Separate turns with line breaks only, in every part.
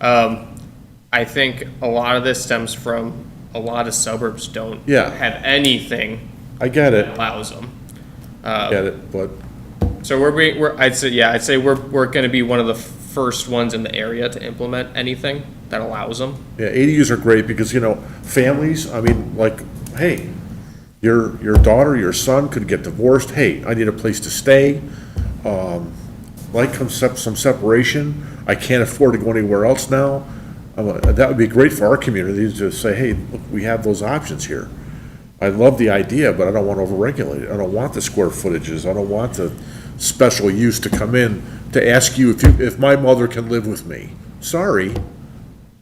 Um, I think a lot of this stems from a lot of suburbs don't
Yeah.
have anything
I get
that
it,
allows them.
I get it, but
So we're, be- we're, I'd say, yeah, I'd say we're, we're gonna be one of the first ones in the area to implement anything that allows them.
Yeah, ADUs are great because, you know, families, I mean, like, hey, your, your daughter, your son could get divorced, hey, I need a place to stay, um, like comes sep- some separation, I can't afford to go anywhere else now. I'm like, That would be great for our community to say, hey, look, we have those options here. I love the idea, but I don't want to overregulate it. I don't want the square footages. I don't want the special use to come in to ask you if you, if my mother can live with me. Sorry,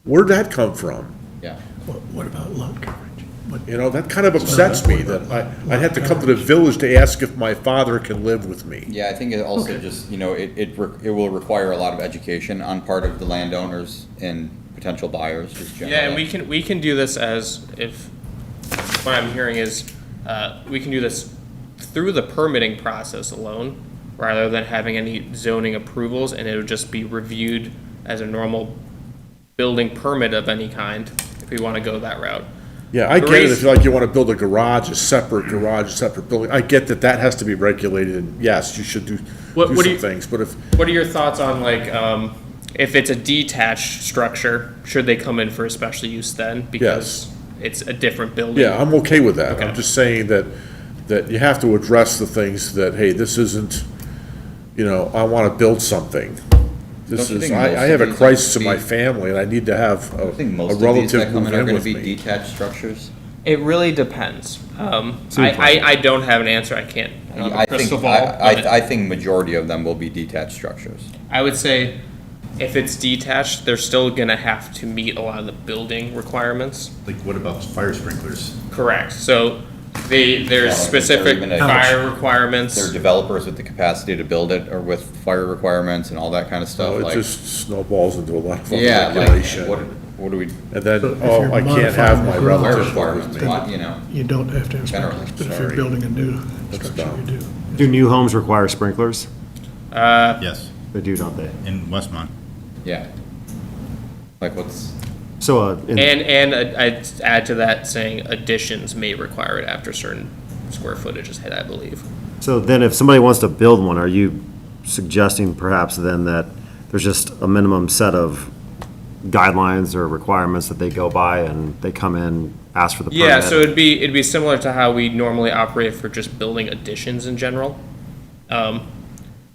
where'd that come from?
Yeah.
What, what about lot coverage? What,
You know, that kind of upsets me that I, I'd have to come to the village to ask if my father can live with me.
Yeah, I think it also just, you know, it, it, re- it will require a lot of education on part of the landowners and potential buyers, just generally.
Yeah, and we can, we can do this as, if, what I'm hearing is, uh, we can do this through the permitting process alone, rather than having any zoning approvals, and it would just be reviewed as a normal building permit of any kind, if we wanna go that route.
Yeah, I get it, if you like, you want to build a garage, a separate garage, a separate building, I get that that has to be regulated, and yes, you should do,
What-
do
what do
some
you-
things, but if,
What are your thoughts on like, um, if it's a detached structure, should they come in for a special use then? Because it's a different building.
yeah, I'm okay with that.
Okay.
I'm just saying that, that you have to address the things that, hey, this isn't, you know, I want to build something. This
Don't
is,
you think most
I, I
of
have a
these
crisis
would
in my
be-
family, and I need to have a
I think
a
most of these that
relative
come
move
in are
in
gonna
with
be
me.
detached structures.
It really depends. Um, I, I, I don't have an answer. I can't. I don't have a
I
crystal
think, I,
ball, but
I, I think majority of them will be detached structures.
I would say if it's detached, they're still gonna have to meet a lot of the building requirements.
Like, what about fire sprinklers?
Correct. So they, there's
Yeah, like,
specific
they're even a-
fire requirements.
They're developers with the capacity to build it or with fire requirements and all that kind of
So
stuff,
It
like,
just snowballs into a lot of
yeah, like,
regulation.
what, what do we,
And then,
So if
oh,
you're
I can't have my
modifying the garage-
fire
relative live
requirements,
with me.
lot, you know?
you don't have to have sprinklers,
Generally,
but if you're
sorry.
building a new
That's
structure,
dumb.
you do.
Do new homes require sprinklers?
Yes,
They do, don't they?
in Westmont.
Yeah. Like what's,
So, uh, in-
And, and I- I'd add to that saying additions may require it after certain square footage is hit, I believe.
so then if somebody wants to build one, are you suggesting perhaps then that there's just a minimum set of guidelines or requirements that they go by and they come in, ask for the permit?
Yeah, so it'd be, it'd be similar to how we normally operate for just building additions in general. Um,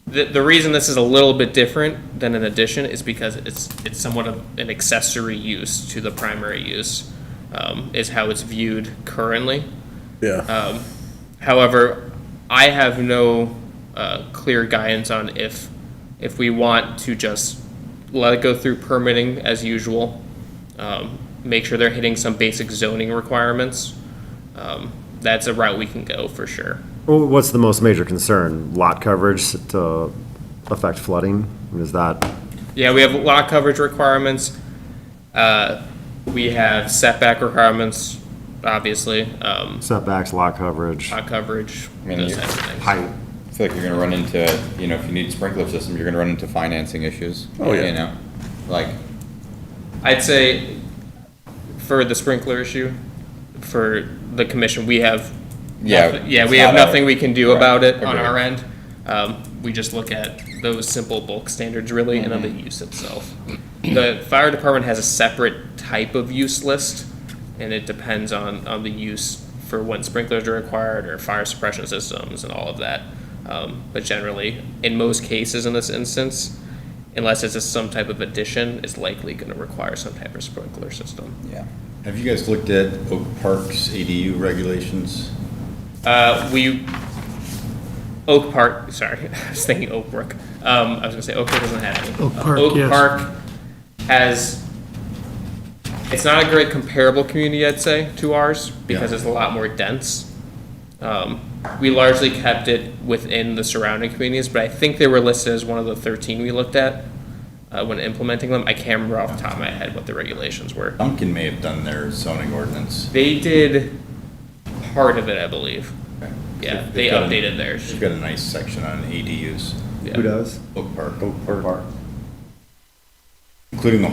The, the reason this is a little bit different than an addition is because it's, it's somewhat of an accessory use to the primary use, um, is how it's viewed currently.
Yeah,
However, I have no uh, clear guidance on if, if we want to just let it go through permitting as usual, um, make sure they're hitting some basic zoning requirements. Um, That's a route we can go for sure.
Well, What's the most major concern? Lot coverage to affect flooding? Is that,
Yeah, we have lot coverage requirements. uh, We have setback requirements, obviously, um,
setbacks, lot coverage,
lot coverage,
I mean,
those
you-
types of things.
height?
I feel like you're gonna run into, you know, if you need sprinkler system, you're gonna run into financing issues.
Oh, yeah.
You know, like,
I'd say for the sprinkler issue, for the commission, we have.
Yeah,
nothing- Yeah,
it's
we have
not a-
nothing we can do
right,
about it on
agreed.
our end. Um, we just look at those simple bulk standards really and then the
Mm-hmm.
use itself. The fire department has a separate type of use list and it depends on, on the use for when sprinklers are required or fire suppression systems and all of that. Um, but generally, in most cases in this instance, unless it's a, some type of addition, it's likely gonna require some type of sprinkler system.
yeah.
Have you guys looked at Oak Park's ADU regulations?
Uh, we, Oak Park, sorry, I was thinking Oak Brook. Um, I was gonna say Oak Brook doesn't have any.
Oak
Uh,
Park, yes.
Park has, it's not a great comparable community, I'd say, to ours, because
Yeah.
it's a lot more dense. Um, we largely kept it within the surrounding communities, but I think they were listed as one of the thirteen we looked at, uh, when implementing them. I can't remember off the top of my head what the regulations were.
Duncan may have done their zoning ordinance.
They did part of it, I believe. Yeah,
They've
they
got a-
updated theirs.
They've got a nice section on ADUs,
Yeah.
does?
Oak Park.
Oak Park.
Including the